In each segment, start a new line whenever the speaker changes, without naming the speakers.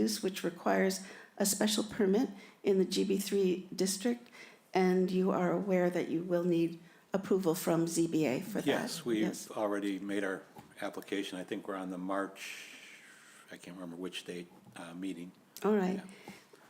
use, which requires a special permit in the GB3 district, and you are aware that you will need approval from ZBA for that?
Yes, we've
Yes.
already made our application. I think we're on the March, I can't remember which date, uh, meeting.
All right.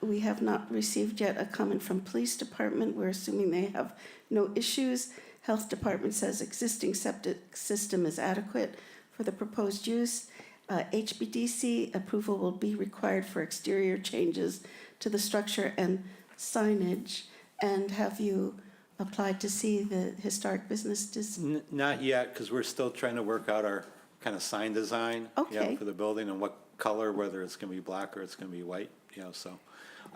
We have not received yet a comment from police department. We're assuming they have no issues. Health department says existing septic system is adequate for the proposed use. Uh, HBDC approval will be required for exterior changes to the structure and signage. And have you applied to see the historic business dis-
N- Not yet, because we're still trying to work out our kind of sign design. you know,
Okay.
For the building and what color, whether it's going to be black or it's going to be white, you know, so.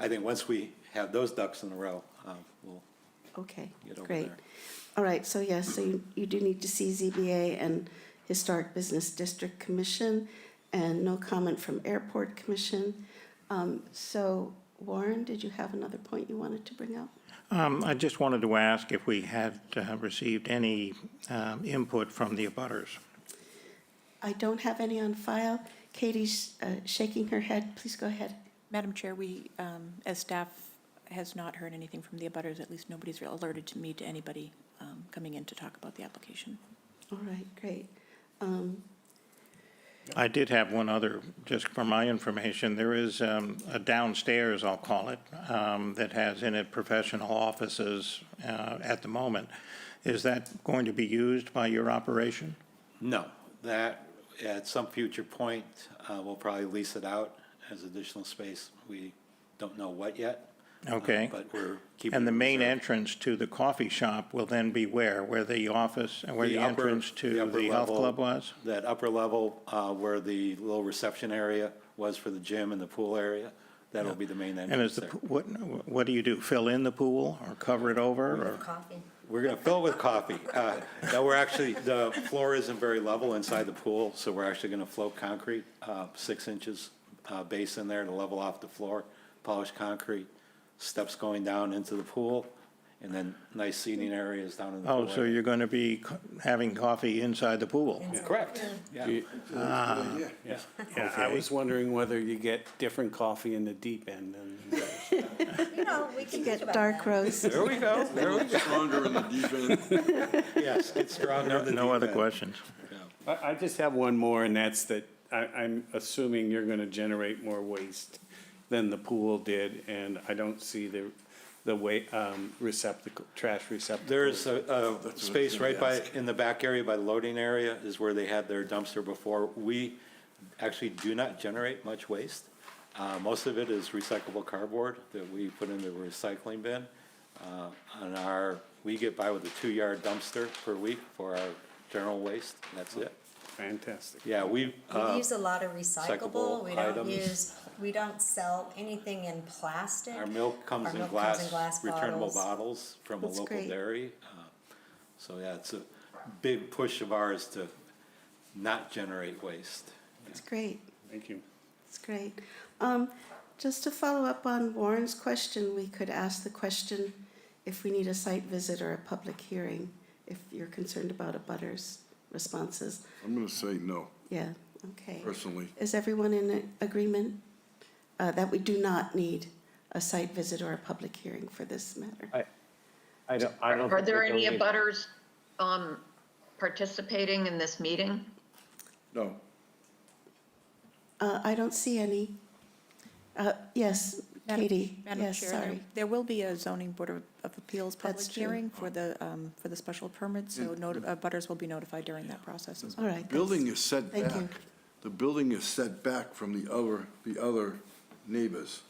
I think once we have those ducks in a row, uh, we'll
Okay,
get over
great.
there.
All right, so yes, so you, you do need to see ZBA and Historic Business District Commission, and no comment from Airport Commission. Um, so Warren, did you have another point you wanted to bring up?
Um, I just wanted to ask if we had uh, received any um, input from the abutters.
I don't have any on file. Katie's uh, shaking her head. Please go ahead.
Madam Chair, we, um, as staff, has not heard anything from the abutters, at least nobody's alerted to me, to anybody um, coming in to talk about the application.
All right, great. Um,
I did have one other, just for my information, there is um, a downstairs, I'll call it, um, that has in it professional offices uh, at the moment. Is that going to be used by your operation?
No, that, at some future point, uh, we'll probably lease it out as additional space. We don't know what yet. uh,
Okay.
But we're keeping.
And the
it
main
reserved.
entrance to the coffee shop will then be where? Where the office, where the
upper-
entrance to
upper
the health
level-
club was?
That upper level uh, where the little reception area was for the gym and the pool area, that'll be the main
And is
entrance
the,
there.
p- what, what do you do? Fill in the pool or cover it over or?
Coffee.
We're going to fill it with coffee. Uh, No, we're actually, the floor isn't very level inside the pool, so we're actually going to float concrete, uh, six inches uh, base in there to level off the floor, polished concrete, steps going down into the pool, and then nice seating areas down in the
Oh,
pool.
so
area.
you're going to be co- having coffee inside the pool?
Correct, yeah.
Yeah, I was wondering whether you get different coffee in the deep end and
You know, we can
Get dark roast.
There we go, there we go.
Stronger in the deep end.
Yes, get stronger. than
No
the
other
event.
questions?
I, I just have one more, and that's that I, I'm assuming you're gonna generate more waste than the pool did, and I don't see the, the way, um, receptacle, trash receptacle.
There's a, a space right by, in the back area by loading area is where they had their dumpster before. We actually do not generate much waste. Uh, most of it is recyclable cardboard that we put in the recycling bin. Uh, on our, we get by with a two-yard dumpster per week for our general waste, that's it.
Fantastic.
Yeah, we,
We
uh,
use a lot of
recyclable
recyclable, we don't
items.
use, we don't sell anything in plastic.
our milk comes
Our
in
milk
glass, returnable
bottles.
bottles from a
That's
local
great.
dairy. Uh, So, yeah, it's a big push of ours to not generate waste.
It's great.
Thank you.
That's great. Um, just to follow up on Warren's question, we could ask the question if we need a site visit or a public hearing, if you're concerned about a butter's responses.
I'm gonna say no,
Yeah, okay.
personally.
Is everyone in a- agreement uh, that we do not need a site visit or a public hearing for this matter?
I don't, I don't.
Are
think
there
we're
any
doing it.
abutters um, participating in this meeting?
No,
Uh, I don't see any. Uh, yes,
Madam-
Katie,
Madam
yes,
Chair, there-
sorry.
There will be a zoning board of of appeals public
That's true.
hearing for the, um, for the special permit, so noti- abutters will be notified during that process as well.
All right.
building is set
Thank you.
back, the building is set back from the other, the other neighbors,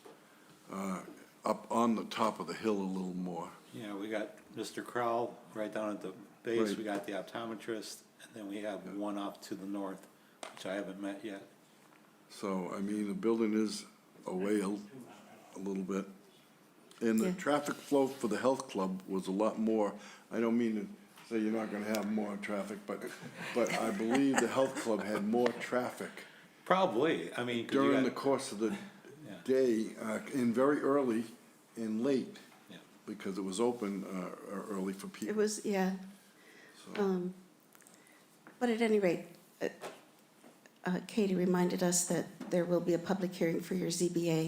uh, up on the top of the hill a little more.
Yeah, we got Mr. Crowell right down at the base, we got the optometrist, and then we have one off to the north, which I haven't met yet.
So, I mean, the building is away a, a little bit. And the
Yeah.
traffic flow for the health club was a lot more. I don't mean to say you're not gonna have more traffic, but, but I believe the health club had more traffic
Probably, I mean, 'cause you
during the
got-
course of the day, uh, and very early and late,
Yeah.
because it was open uh, uh, early for
It
people.
was, yeah. Um, But at any rate, uh, uh, Katie reminded us that there will be a public hearing for your ZBA